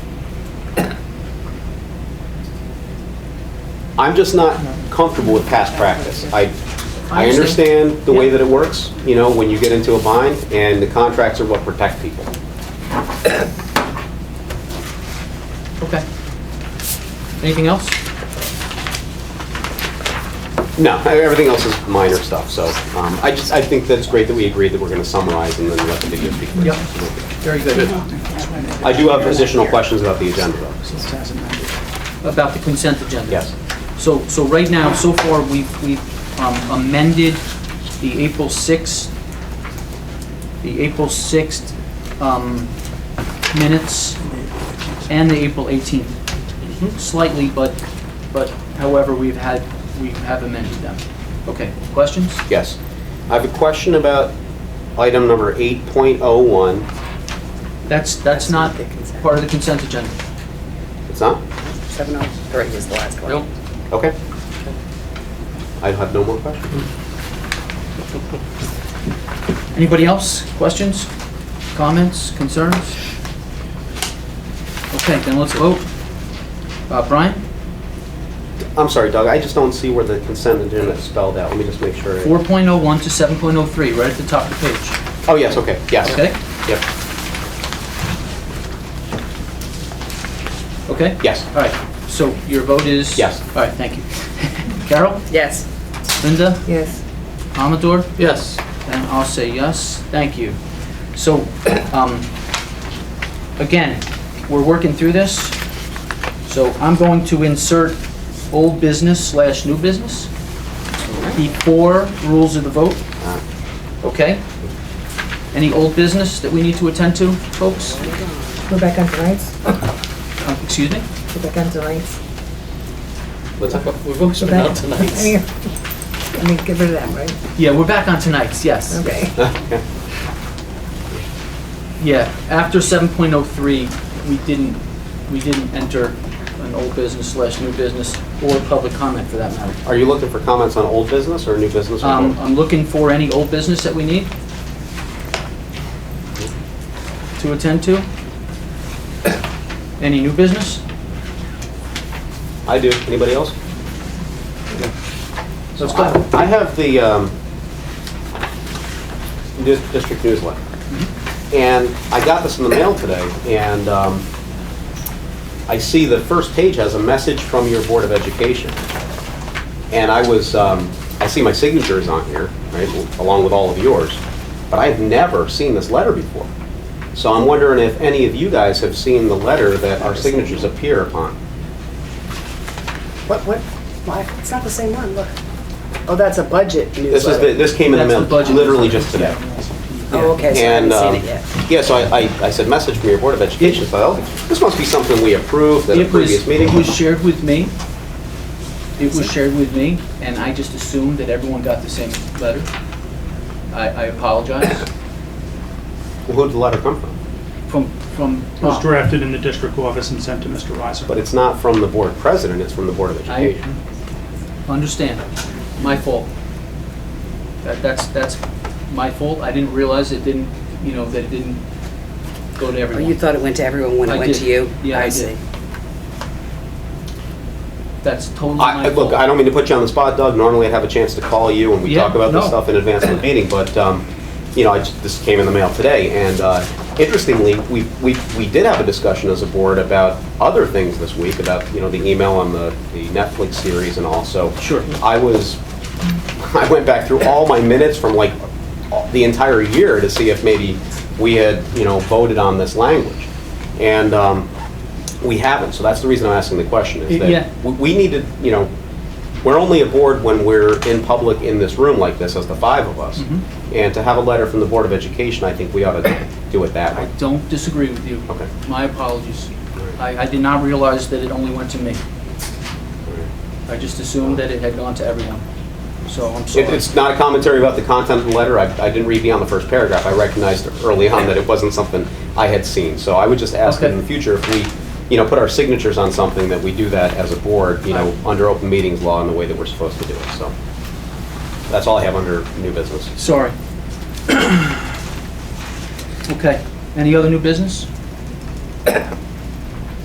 I'm just not comfortable with past practice. I, I I understand. understand the way Yeah. that it works, you know, when you get into a bind, and the contracts are what protect people. Okay. Anything else? No, e-, everything else is minor stuff, so um, I just, I think that it's great that we agreed that we're going to summarize and then let the video speak. for Yep. itself. Very good. I do have additional questions about the agenda, though. About the consent agenda? Yes. So, so right now, so far, we've, we've um, amended the April 6th, the April 6th um, minutes and the April 18th Mm-hmm. slightly, but, but however, we've had, we have amended them. Okay, questions? Yes. I have a question about item number 8.01. That's, that's not part of the consent agenda. It's not? Seven oh three is the last one. Okay. I have no more questions. Anybody else? Questions? Comments? Concerns? Okay, then let's vote. Uh, Brian, I'm sorry, Doug, I just don't see where the consent agenda is spelled out. Let me just make sure. it- 4.01 to 7.03, right at the top of the page. Oh, yes, okay, yes. Okay? Yep, Okay? yes. All right, so your vote is? Yes. All right, thank you. Carol, Yes. Linda, Yes. Amador, Yes. and I'll say yes. Thank you. So, um, again, we're working through this. So I'm going to insert old business slash new business before rules of the vote. Uh, Okay. Any old business that we need to attend to, folks? Go back on tonight's, Uh, Excuse me? go back on tonight's. Let's have a- We've always Go been out back. I mean, tonight. I mean, get rid of that, right? Yeah, we're back on tonight's, yes. Okay. Okay. Yeah, after 7.03, we didn't, we didn't enter an old business slash new business or public comment for that matter. Are you looking for comments on old business or new business? or Um, both? I'm looking for any old business that we need to attend to. Any new business? I do. Anybody else? Let's I go. I have the um, dis- district newsletter. Mm-hmm. And I got this in the mail today, and um, I see the first page has a message from your Board of Education. And I was, um, I see my signature is on here, right, along with all of yours, but I've never seen this letter before. So I'm wondering if any of you guys have seen the letter that our signatures appear upon. What, what, why, it's not the same one, look. Oh, that's a budget This is, the- newsletter. this came in the That's mail the budget. literally just today. Oh, okay, so I haven't And, seen um, it yet. yeah, so I, I- I said, message from your Board of Education, so oh, this must be something we approved at a It was, previous meeting. it was shared with me. It was shared with me, and I just assumed that everyone got the same letter. I, I apologize. Who'd the letter come from? From, from. It was drafted in the district office and sent to Mr. Reiser. But it's not from the Board President, it's from the Board of I Education. understand. My fault. That, that's, that's my fault. I didn't realize it didn't, you know, that it didn't go to Oh, you everyone. thought it went to everyone when I it went did. to you? Yeah, I did. see. That's totally I, I- my fault. look, I don't mean to put you on the spot, Doug, normally I'd have a chance to call you and we Yeah, talk about this no. stuff in advance of the meeting, but, um, you know, I just, this came in the mail today, and, uh, interestingly, we, we, we did have a discussion as a board about other things this week, about, you know, the email on the, the Netflix series and also. Sure. I was, I went back through all my minutes from like the entire year to see if maybe we had, you know, voted on this language. And um, we haven't, so that's the reason I'm asking the question, is Yeah. that we- we need to, you know, we're only aboard when we're in public in this room like this, as the five of us. And to have a letter from the Board of Education, I think we ought to do it that I way. don't disagree with you. Okay. My apologies. I, I did not realize that it only went to me. I just assumed that it had gone to everyone. So I'm It- sorry. It's not a commentary about the content of the letter. I I didn't read beyond the first paragraph. I recognized early on that it wasn't something I had seen. So I would just ask that in Okay. the future if we, you know, put our signatures on something, that we do that as a board, you know, under open meetings law in the way that we're supposed to do it. So that's all I have under new business. Sorry. Okay, any other new business?